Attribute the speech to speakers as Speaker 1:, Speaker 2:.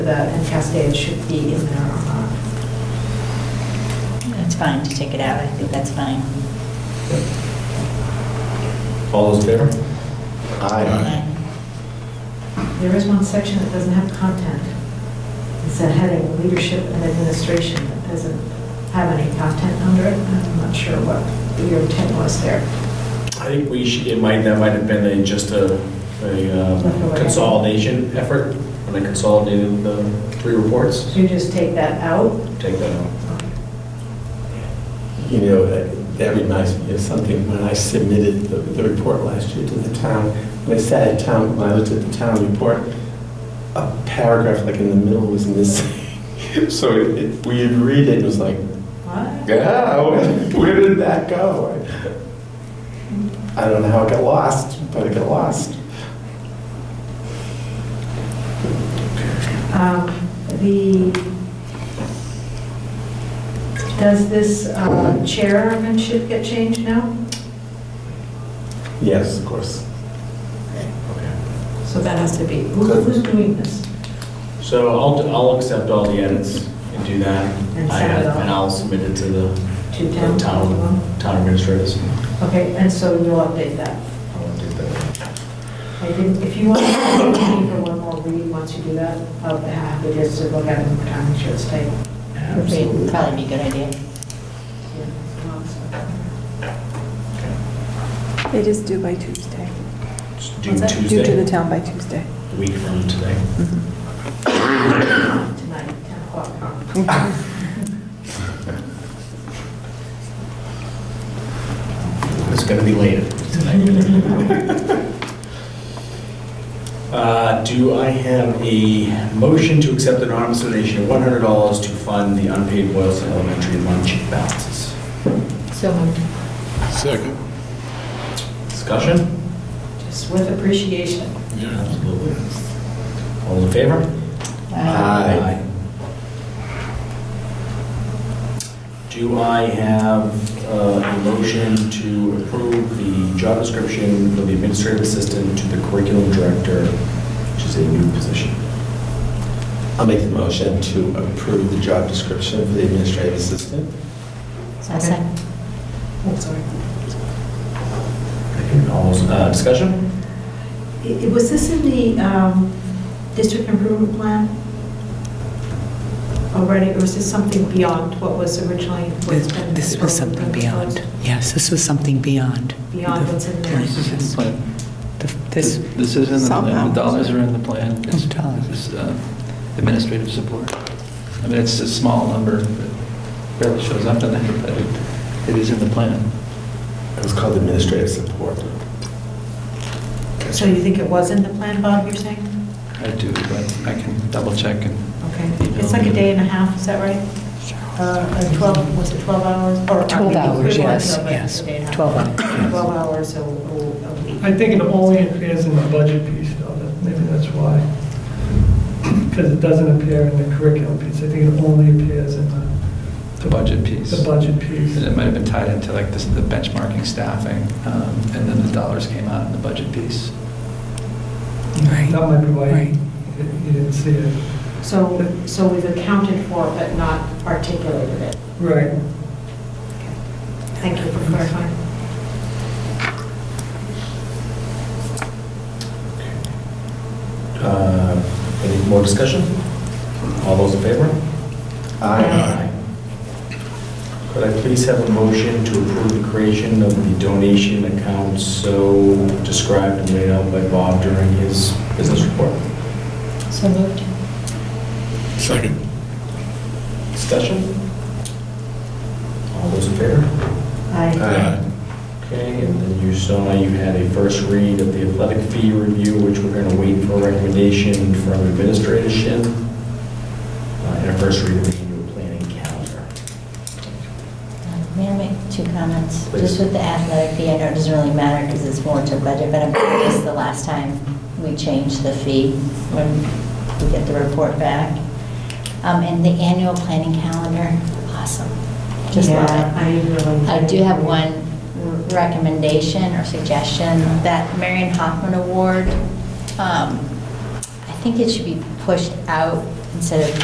Speaker 1: that and Cascade should be in there or not.
Speaker 2: That's fine to take it out, I think that's fine.
Speaker 3: All those in favor? Aye.
Speaker 1: There is one section that doesn't have content. It's a heading, leadership and administration, that doesn't have any content under it. I'm not sure what your intent was there.
Speaker 3: I think we should, it might, that might have been a, just a, a uh, consolidation effort, when I consolidated the three reports,
Speaker 1: Should you just take that out?
Speaker 3: take that out.
Speaker 4: You know, that- that reminds me of something, when I submitted the, the report last year to the town, when I sat at town, when I looked at the town report, a paragraph like in the middle was missing. So it- it, we had read it, and it was like,
Speaker 1: What?
Speaker 4: ah, where did that go? I don't know how it got lost, but it got lost.
Speaker 1: Um, The, does this uh, chairmanship get changed now?
Speaker 4: Yes, of course.
Speaker 1: So that has to be, who- who's doing this?
Speaker 3: So I'll, I'll accept all the edits and do that.
Speaker 1: And
Speaker 3: I
Speaker 1: send it
Speaker 3: have-
Speaker 1: off.
Speaker 3: And I'll submit it to the
Speaker 1: Two
Speaker 3: the
Speaker 1: town?
Speaker 3: town, town administrators.
Speaker 1: Okay, and so you'll update that.
Speaker 3: I'll do that.
Speaker 1: I think if you want to leave for one more read, once you do that, I'll be happy just to look at it more time, make sure it's tight.
Speaker 2: Would
Speaker 3: Absolutely.
Speaker 2: probably be a good idea.
Speaker 5: It is due by Tuesday.
Speaker 3: It's Due
Speaker 5: What's that? Due to the
Speaker 3: Tuesday,
Speaker 5: town by Tuesday.
Speaker 3: a week from today.
Speaker 1: Tonight, 10 o'clock.
Speaker 3: It's gonna be late tonight. Uh, Do I have a motion to accept an anonymous donation of $100 to fund the unpaid Boylston Elementary lunch balances?
Speaker 2: So
Speaker 6: Second.
Speaker 3: Discussion?
Speaker 1: Just with appreciation.
Speaker 3: Absolutely. All in favor?
Speaker 4: Aye.
Speaker 3: Do I have uh, a motion to approve the job description for the administrative assistant to the curriculum director, which is a new position?
Speaker 4: I'll make the motion to approve the job description for the administrative assistant.
Speaker 2: Second.
Speaker 1: Oh, sorry.
Speaker 3: All those, uh, discussion?
Speaker 1: I- Was this in the um, district improvement plan already, or was this something beyond what was originally? what's been
Speaker 7: This was something
Speaker 1: proposed?
Speaker 7: beyond, yes, this was something beyond.
Speaker 1: Beyond
Speaker 7: the
Speaker 1: what's in there.
Speaker 7: plan. Yes. The- This,
Speaker 8: This is in the plan,
Speaker 5: Somehow.
Speaker 8: the dollars are in the plan. It's-
Speaker 7: Dollars.
Speaker 8: it's, uh, Administrative support. I mean, it's a small number, but barely shows up in there, but it- it is in the plan.
Speaker 4: It was called administrative support.
Speaker 1: So you think it was in the plan, Bob, you're saying?
Speaker 8: I do, but I can double check and
Speaker 1: Okay, it's like a day and a half, is that right? Uh, uh, 12, was it 12 hours? Or-
Speaker 7: 12 hours,
Speaker 1: It was,
Speaker 7: yes,
Speaker 1: uh, but
Speaker 7: yes,
Speaker 1: it's a day and a half.
Speaker 7: 12 hours.
Speaker 1: 12 hours a a- a week.
Speaker 9: I think it only appears in the budget piece, though, that maybe that's why. Because it doesn't appear in the curriculum piece, I think it only appears in the,
Speaker 8: the budget piece.
Speaker 9: the budget piece.
Speaker 8: And it might have been tied into like this- the benchmarking staffing, um, and then the dollars came out in the budget piece.
Speaker 7: Right.
Speaker 9: That might be why
Speaker 7: Right.
Speaker 9: you you didn't see it.
Speaker 1: So, so we've accounted for it, but not articulated it.
Speaker 9: Right.
Speaker 1: Thank you for clarifying.
Speaker 3: Uh, Any more discussion? All those in favor? Could I please have a motion to approve the creation of the donation account so described and laid out by Bob during his business report?
Speaker 2: So moved.
Speaker 6: Second.
Speaker 3: Discussion? All those in favor?
Speaker 4: Uh,
Speaker 1: Aye.
Speaker 3: Okay, and then you saw you had a first read of the athletic fee review, which we're going to wait for a recommendation from administration, uh, and a first read of the annual planning calendar.
Speaker 2: May I make two comments?
Speaker 3: Please.
Speaker 2: Just with the athletic fee, I know it doesn't really matter because it's more to budget, but I'm curious, the last time we changed the fee, when we get the report back. Um, And the annual planning calendar, awesome. Just love
Speaker 1: Yeah,
Speaker 2: it.
Speaker 1: I really.
Speaker 2: I do have one recommendation or suggestion, that Marion Hoffman Award, um, I think it should be pushed out instead of